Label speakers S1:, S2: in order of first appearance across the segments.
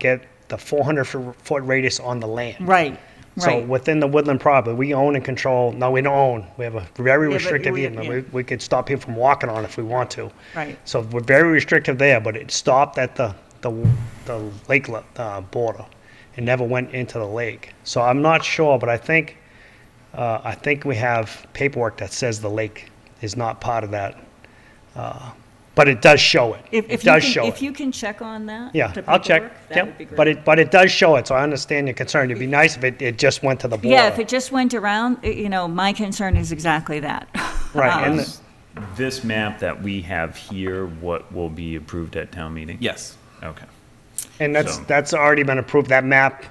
S1: get the 400 fo- foot radius on the land.
S2: Right,
S1: So
S2: right.
S1: within the woodland property, we own and control, no, we don't own, we have a very
S2: but
S1: restrictive,
S2: we-
S1: easement.
S2: yeah.
S1: we, we could stop people from walking on if we want to.
S2: Right.
S1: So we're very restrictive there, but it stopped at the, the, the lake lo- uh, border. It never went into the lake. So I'm not sure, but I think, uh, I think we have paperwork that says the lake is not part of that. uh, But it does show it.
S2: If,
S1: It
S2: if you
S1: does
S2: can-
S1: show it.
S2: If you can check on that.
S1: Yeah,
S2: to
S1: I'll check.
S2: paperwork, That
S1: Yep.
S2: would be great.
S1: But it, but it does show it, so I understand your concern. It'd be nice if it, it just went to the border.
S2: Yeah, if it just went around, y- you know, my concern is exactly that.
S1: Right, and
S2: Um,
S1: the-
S3: This map that we have here, what will be approved at town meeting?
S4: Yes.
S3: Okay.
S1: And that's,
S3: So-
S1: that's already been approved, that map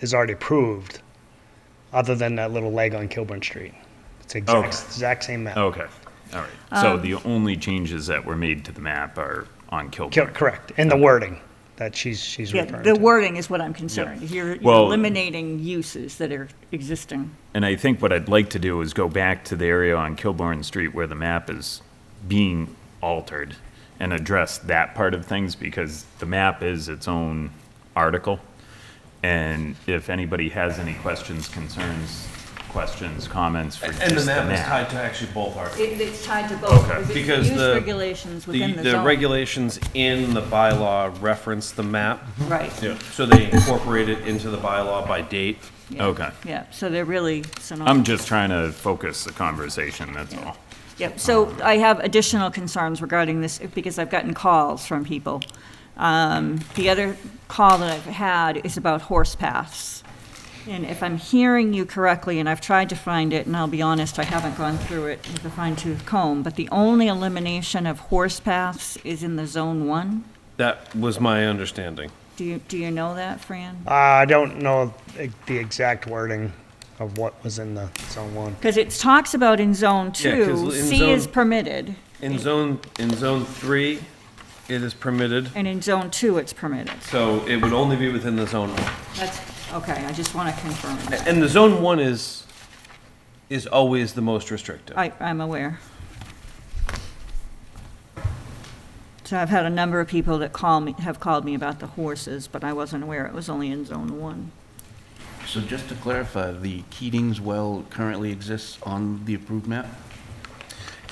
S1: is already approved, other than that little leg on Kilburn Street. It's exact,
S3: Okay.
S1: exact same map.
S3: Okay, all right. So the only changes that were made to the map are on
S1: Ki-
S3: Kilburn.
S1: Correct, and the wording that she's, she's
S2: Yeah,
S1: referring
S2: the
S1: to.
S2: wording is what I'm concerned. You're you're
S3: Well-
S2: eliminating uses that are existing.
S3: And I think what I'd like to do is go back to the area on Kilburn Street where the map is being altered and address that part of things because the map is its own article. And if anybody has any questions, concerns, questions, comments for
S4: And the
S3: just the
S4: map is
S3: map.
S4: tied to actually both articles.
S2: It's tied to both,
S4: Because
S2: use
S4: the-
S2: regulations
S4: The,
S2: within the
S4: the
S2: zone.
S4: regulations in the bylaw reference the map.
S2: Right,
S4: So they incorporate it into the bylaw by date.
S2: yeah.
S3: Okay,
S2: yeah, so they're really
S3: I'm
S2: synonymous.
S3: just trying to focus the conversation, that's all.
S2: Yep, so I have additional concerns regarding this, because I've gotten calls from people. Um, The other call that I've had is about horse paths. And if I'm hearing you correctly, and I've tried to find it, and I'll be honest, I haven't gone through it with a fine tooth comb, but the only elimination of horse paths is in the Zone 1?
S4: That was my understanding.
S2: Do you, do you know that, Fran?
S1: Uh, I don't know the the exact wording of what was in the zone one.
S2: Because it talks about in Zone
S4: Yeah, 'cause
S2: 2,
S4: in
S2: C is
S4: zone-
S2: permitted,
S4: In zone, in zone three, it is permitted,
S2: and in Zone 2, it's permitted.
S4: so it would only be within the zone one.
S2: That's, okay, I just want to confirm that.
S4: And the zone one is, is always the most restrictive.
S2: I, I'm aware. So I've had a number of people that call me, have called me about the horses, but I wasn't aware it was only in Zone 1.
S5: So just to clarify, the Keating's well currently exists on the approved map?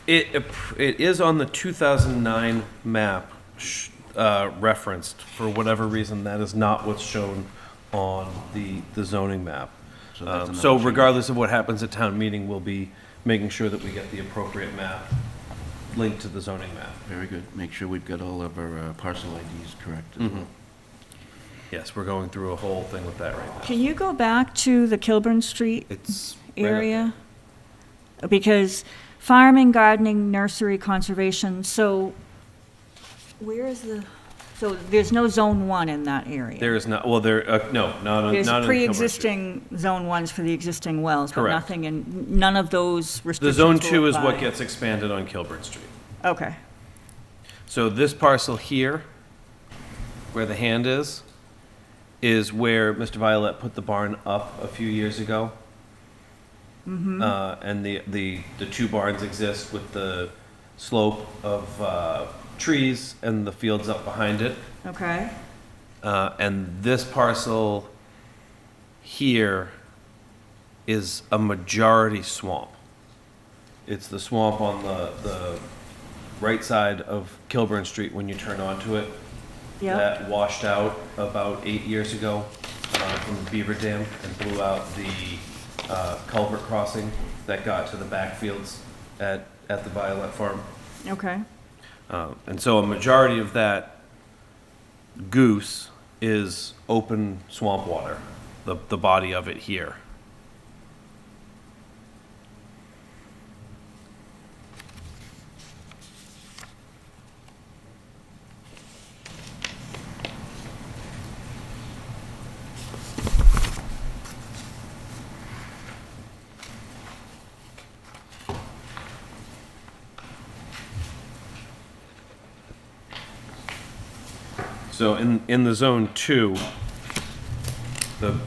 S4: It, ap- it is on the 2009 map sh- uh, referenced, for whatever reason, that is not what's shown on the, the zoning map.
S5: So that's
S4: Um,
S5: another
S4: So
S5: change.
S4: regardless of what happens at town meeting, we'll be making sure that we get the appropriate map linked to the zoning map.
S5: Very good. Make sure we've got all of our uh, parcel IDs correct as well.
S4: Yes, we're going through a whole thing with that right now.
S2: Can you go back to the Kilburn Street
S4: It's. right up
S2: area? Because farming, gardening, nursery, conservation, so where is the, so there's no Zone 1 in that area?
S4: There is not, well, there, uh, no, not on, not on.
S2: There's
S4: Kilmer Street.
S2: pre-existing Zone 1s for the existing wells, but
S4: Correct.
S2: nothing in, none of those
S4: The
S2: restrictions
S4: zone
S2: will
S4: two is what
S2: apply.
S4: gets expanded on Kilburn Street.
S2: Okay.
S4: So this parcel here, where the hand is, is where Mr. Violet put the barn up a few years ago. Uh, and the, the, the two barns exist with the slope of, uh, trees and the fields up behind it.
S2: Okay,
S4: Uh, and this parcel here is a majority swamp. It's the swamp on the, the right side of Kilburn Street when you turn onto it.
S2: Yep.
S4: That washed out about eight years ago, uh, from the Beaver Dam and blew out the, uh, culvert crossing that got to the backfields at, at the Violet Farm.
S2: okay.
S4: Uh, And so a majority of that goose is open swamp water, the, the body of it here. So in, in the zone two, the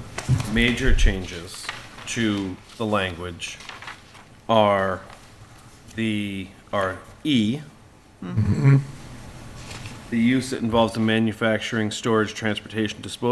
S4: major changes to the language are the, are E, the use that involves the manufacturing, storage, transportation, disposal